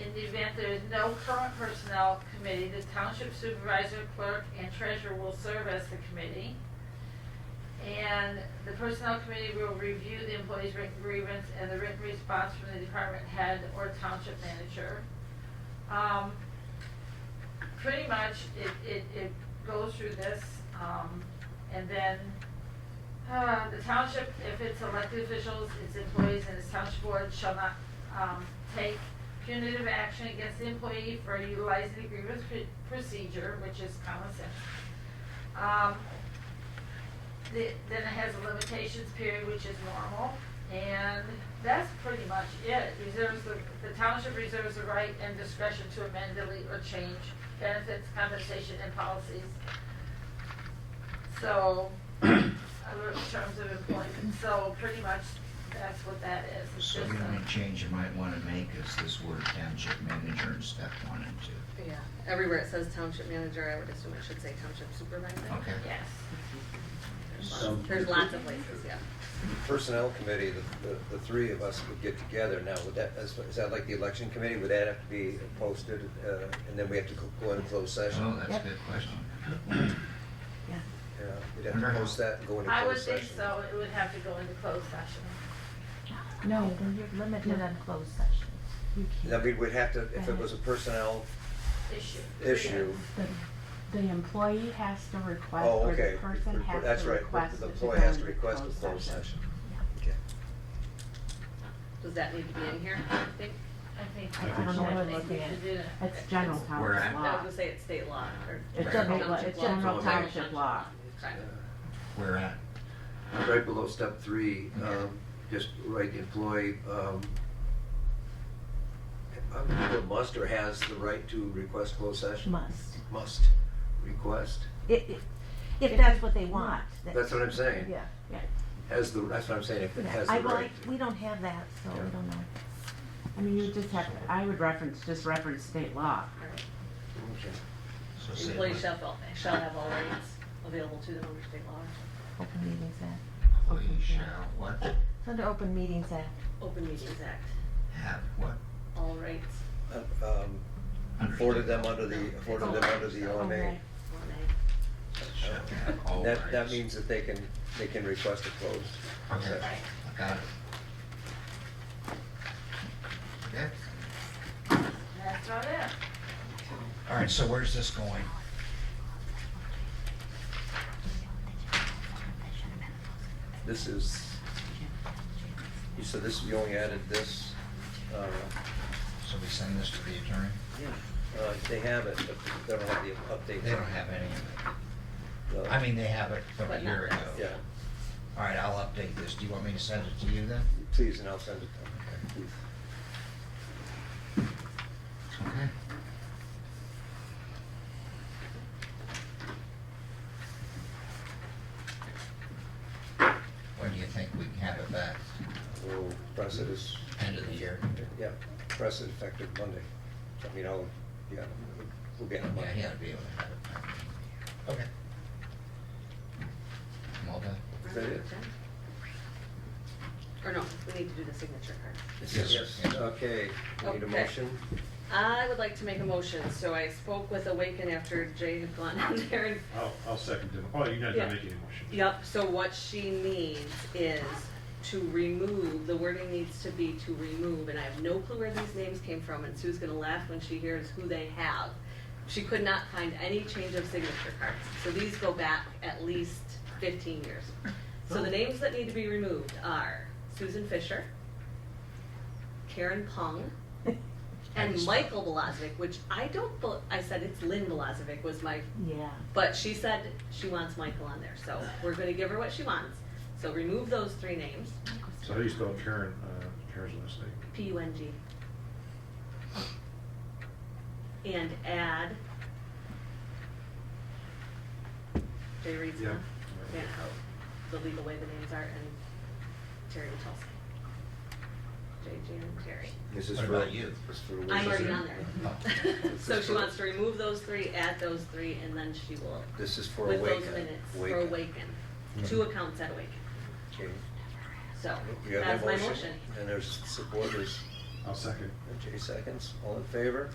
In the event there is no current personnel committee, the township supervisor, clerk, and treasurer will serve as the committee. And the personnel committee will review the employee's written grievance and the written response from the department head or township manager. Um, pretty much, it, it, it goes through this, um, and then, uh, the township, if it's elected officials, its employees, and its township board shall not, um, take punitive action against the employee for utilizing the grievance pr- procedure, which is common sense. Um, the- then it has a limitations period, which is normal, and that's pretty much it. Reserves, the the township reserves the right and discretion to amend, delete, or change benefits, compensation, and policies. So, other terms of employment, so pretty much that's what that is. It's So just the a- only change you might want to make is this word township manager in step one and two. Yeah, everywhere it says township manager, I would assume it should say township supervisor. Okay? Yes. There's So- lots- There's lots of places, yeah. Personnel committee, the, the, the three of us would get together now, would that, is is that like the election committee, would that have to be posted, uh, and then we have to go- go into closed Oh, session? that's a good question. Yeah, we'd have to post that and go into I would closed session. think so, it would have to go into closed session. No, then you're limited on closed sessions. You Then can't. we would have to, if it was a personnel Issue. issue, The, the employee has to request, Oh, or okay. the person Report- has that's to right. request. The it employee go has to into request a closed session. okay. Does that need to be in here, I think? I think. I don't know what I'm looking at. Yeah. It's general We're at- township I was law. gonna say it's state law, or. It's Right. general, law- Township it's law. general Okay. township law. Okay. We're at, Right below step three, um, just write employee, um, Um, the must or has the right to request closed session? must. Must. request. If, if that's what they want. that- That's what I'm saying. Yeah, yeah. Has the, that's what I'm saying, if it has I- the well, right. We don't have that, so Yeah. we don't know. I mean, you just have, to- I would reference, just reference state law. Alright. Okay. so say, Employees what- shall, feel- shall have all rights available to them under state law. Open Meetings Act. employee shall what, It's under Open Meetings Act. Open Meetings Act, have what? all rights. Uh, um, Afforded them under the, afforded them under the OMA. Okay. One A. Shall have all That, that rights. means that they can, they can request a closed Okay, session. I got it. Okay, That's about it. all right, so where's this going? This is, you said this, you only added this, uh, So we send this to the attorney? uh, they have it, but they don't have the update. They don't have any of No. it. I mean, they have it from a But not year ago. this. Yeah, All right, I'll update this. Do you want me to send it to you then? please, and I'll send it to them. Okay. When do you think we can have it back? We'll press it as, End of the year? yeah, press it effective Monday. I mean, I'll, yeah, we'll get it Yeah, Monday. he ought to be able to have it back. Okay. I'm all done. Is that it? Or no, we need to do the signature card. Yes. Yes, okay, we need Okay. a motion. I would like to make a motion, so I spoke with Awaken after Jay had gone down there and I'll, I'll second them. Oh, you're not Yeah. gonna make any motion. Yep, so what she needs is to remove, the wording needs to be to remove, and I have no clue where these names came from, and Sue's gonna laugh when she hears who they have. She could not find any change of signature cards, so these go back at least fifteen years. So the names that need to be removed are Susan Fisher, Karen Pung, and Michael Belozevic, which I don't, bel- I said it's Lynn Belozevic was my Yeah. but she said she wants Michael on there, so we're gonna give her what she wants. So remove those three names, So how do you spell Karen, uh, Karen's last name? P U N G. And add. Jay Reed's Yeah. now, and how the legal way the names are, and Terry Wachowski. J, Jan, and Terry. This is What for- about you? this is for I'm already Elizabeth. on there. So she wants to remove those three, add those three, and then she will, This is for with Awaken. Hmm. those minutes, for Awaken. Two accounts at Awaken. Okay. So, You have that's that my motion? motion. And there's supporters, I'll second. Jay seconds, all in favor?